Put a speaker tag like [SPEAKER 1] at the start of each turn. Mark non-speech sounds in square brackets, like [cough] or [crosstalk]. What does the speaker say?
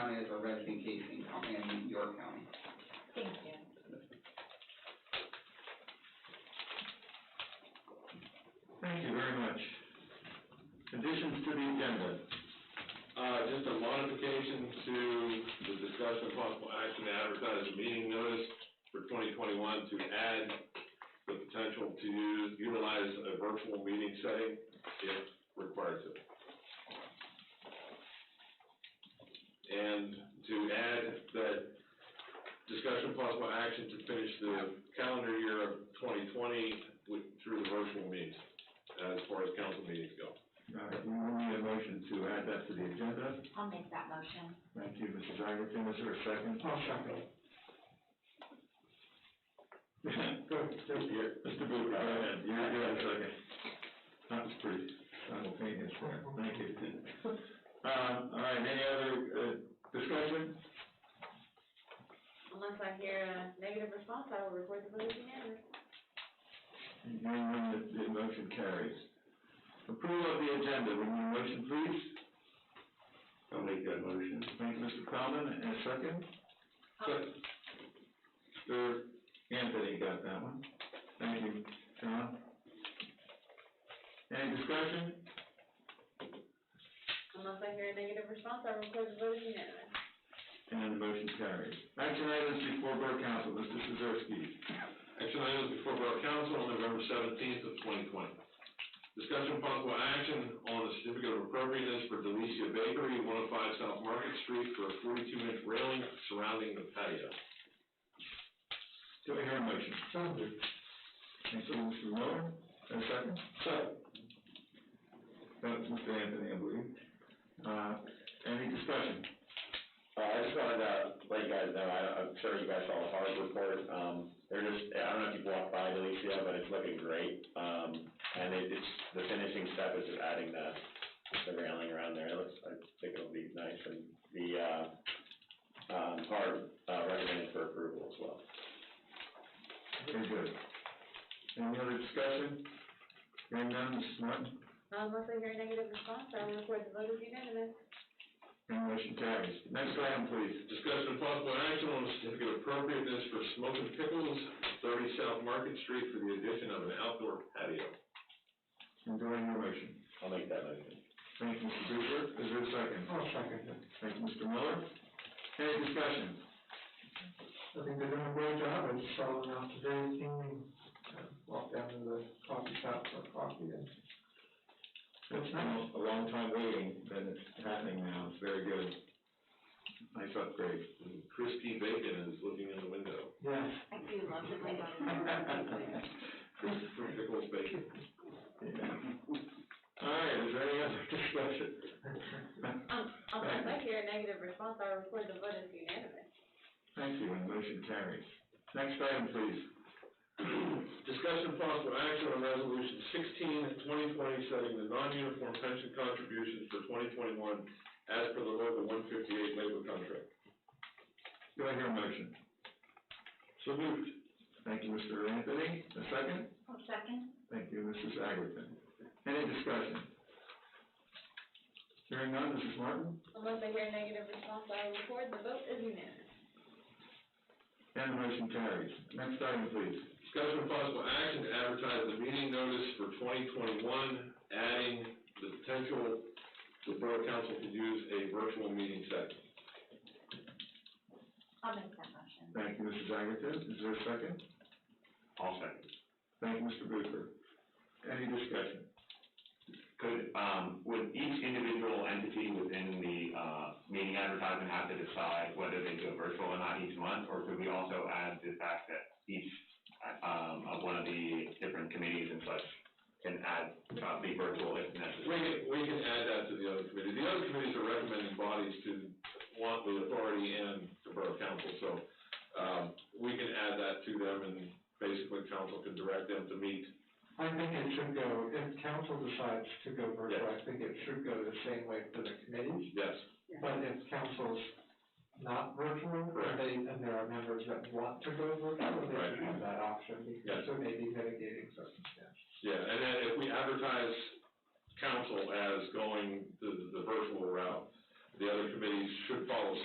[SPEAKER 1] Door County.
[SPEAKER 2] Thank you.
[SPEAKER 3] Thank you very much. Additions to the agenda.
[SPEAKER 4] Uh, just a modification to the discussion of possible action to advertise a meeting notice for twenty twenty-one to add the potential to use, utilize a virtual meeting setting if requires it. And to add that discussion of possible action to finish the calendar year of twenty twenty with, through the virtual means, as far as council meetings go.
[SPEAKER 3] All right, we will need a motion to add that to the agenda.
[SPEAKER 2] I'll make that motion.
[SPEAKER 3] Thank you, Mrs. Iverson, is there a second?
[SPEAKER 5] I'll
[SPEAKER 3] [laughs]
[SPEAKER 5] second.
[SPEAKER 3] Mr. Booth, go ahead, you you have a second. That was pretty simultaneous there, thank
[SPEAKER 5] [laughs]
[SPEAKER 3] you. Um, all right, any other, uh, discussion?
[SPEAKER 2] Unless I hear a negative response, I will record the vote as unanimous.
[SPEAKER 3] Hearing none, the, the motion carries. Approval of the agenda, we need a motion, please.
[SPEAKER 5] I'll make that motion.
[SPEAKER 3] Thank you, Mr. Cronin, and a second. Second. Mr. Anthony got that one. Thank you, John. Any discussion?
[SPEAKER 2] Unless I hear a negative response, I will record the vote as unanimous.
[SPEAKER 3] And the motion carries. Action items before Borough Council, Mr. Szewski.
[SPEAKER 4] Action items before Borough Council on November seventeenth of twenty twenty. Discussion of possible action on the certificate of appropriateness for Delicia Bakery, one oh five South Market Street for a forty-two inch railing surrounding the patio.
[SPEAKER 3] Do I hear a motion? Thank you, Mr. Miller. And a second? Second. That was Mr. Anthony, I believe. Uh, any discussion?
[SPEAKER 6] Uh, I just wanted to let you guys know, I, I'm sure you guys saw the hard report, um, they're just, I don't know if you've walked by Delicia, but it's looking great. Um, and it, it's, the finishing step is just adding the, the railing around there, it looks, I think it'll be nice, and the, uh, um, hard, uh, recommended for approval as well.
[SPEAKER 3] Very good. Any other discussion? Hearing none, Mrs. Martin?
[SPEAKER 2] Unless I hear a negative response, I will record the vote as unanimous.
[SPEAKER 3] And motion carries. Next item, please.
[SPEAKER 4] Discussion of possible action on the certificate of appropriateness for smoking pickles, thirty South Market Street for the addition of an outdoor patio.
[SPEAKER 3] And do I hear a motion?
[SPEAKER 6] I'll make that motion.
[SPEAKER 3] Thank you, Mr. Booper. Is there a second?
[SPEAKER 5] I'll second it.
[SPEAKER 3] Thank you, Mr. Miller. Any discussion?
[SPEAKER 5] I think they're doing a great job, I just saw them out today, came and walked down to the coffee shop for coffee and.
[SPEAKER 3] It's been a long time waiting, but it's happening now. It's very good. Nice upgrade.
[SPEAKER 4] And Christie Bacon is looking in the window.
[SPEAKER 5] Yeah.
[SPEAKER 2] I do love the way that.
[SPEAKER 4] Chris from Pickles Bacon.
[SPEAKER 3] All right, is there any other [laughs]
[SPEAKER 5] [laughs]
[SPEAKER 3] discussion?
[SPEAKER 2] Um, unless I hear a negative response, I will record the vote as unanimous.
[SPEAKER 3] Thank you, and motion carries. Next item, please.
[SPEAKER 4] Discussion of possible action on resolution 16, 2020, setting the non-uniform pension contributions for twenty twenty-one as per the local one fifty-eight labor contract.
[SPEAKER 3] Do I hear a motion?
[SPEAKER 4] So moved.
[SPEAKER 3] Thank you, Mr. Anthony. A second?
[SPEAKER 2] I'll second.
[SPEAKER 3] Thank you, Mrs. Agarton. Any discussion? Hearing none, Mrs. Martin?
[SPEAKER 2] Unless I hear a negative response, I will record the vote as unanimous.
[SPEAKER 3] And the motion carries. Next item, please.
[SPEAKER 4] Discussion of possible action to advertise the meeting notice for twenty twenty-one, adding the potential the Borough Council could use a virtual meeting setting.
[SPEAKER 2] I'll make that motion.
[SPEAKER 3] Thank you, Mrs. Agarton. Is there a second?
[SPEAKER 6] I'll second.
[SPEAKER 3] Thank you, Mr. Booper. Any discussion?
[SPEAKER 6] Could, um, would each individual entity within the, uh, meeting advertisement have to decide whether they do a virtual or not each month? Or could we also add the fact that each, um, of one of the different committees and such can add, uh, be virtual if
[SPEAKER 4] We
[SPEAKER 6] necessary?
[SPEAKER 4] can, we can add that to the other committee. The other committees are recommending bodies to want the authority and the borough council, so, um, we can add that to them and basically council can direct them to meet.
[SPEAKER 5] I think it should go, if council decides to go virtual, I think it should go the same way for the committees.
[SPEAKER 4] Yes,
[SPEAKER 5] But if council's not virtual,
[SPEAKER 4] Correct.
[SPEAKER 5] they, and there are members that want to go virtual, they should
[SPEAKER 4] Right.
[SPEAKER 5] have that option, because
[SPEAKER 4] Yes.
[SPEAKER 5] there may be mitigating circumstances.
[SPEAKER 4] yeah, and then if we advertise council as going the, the virtual route, the other committees should follow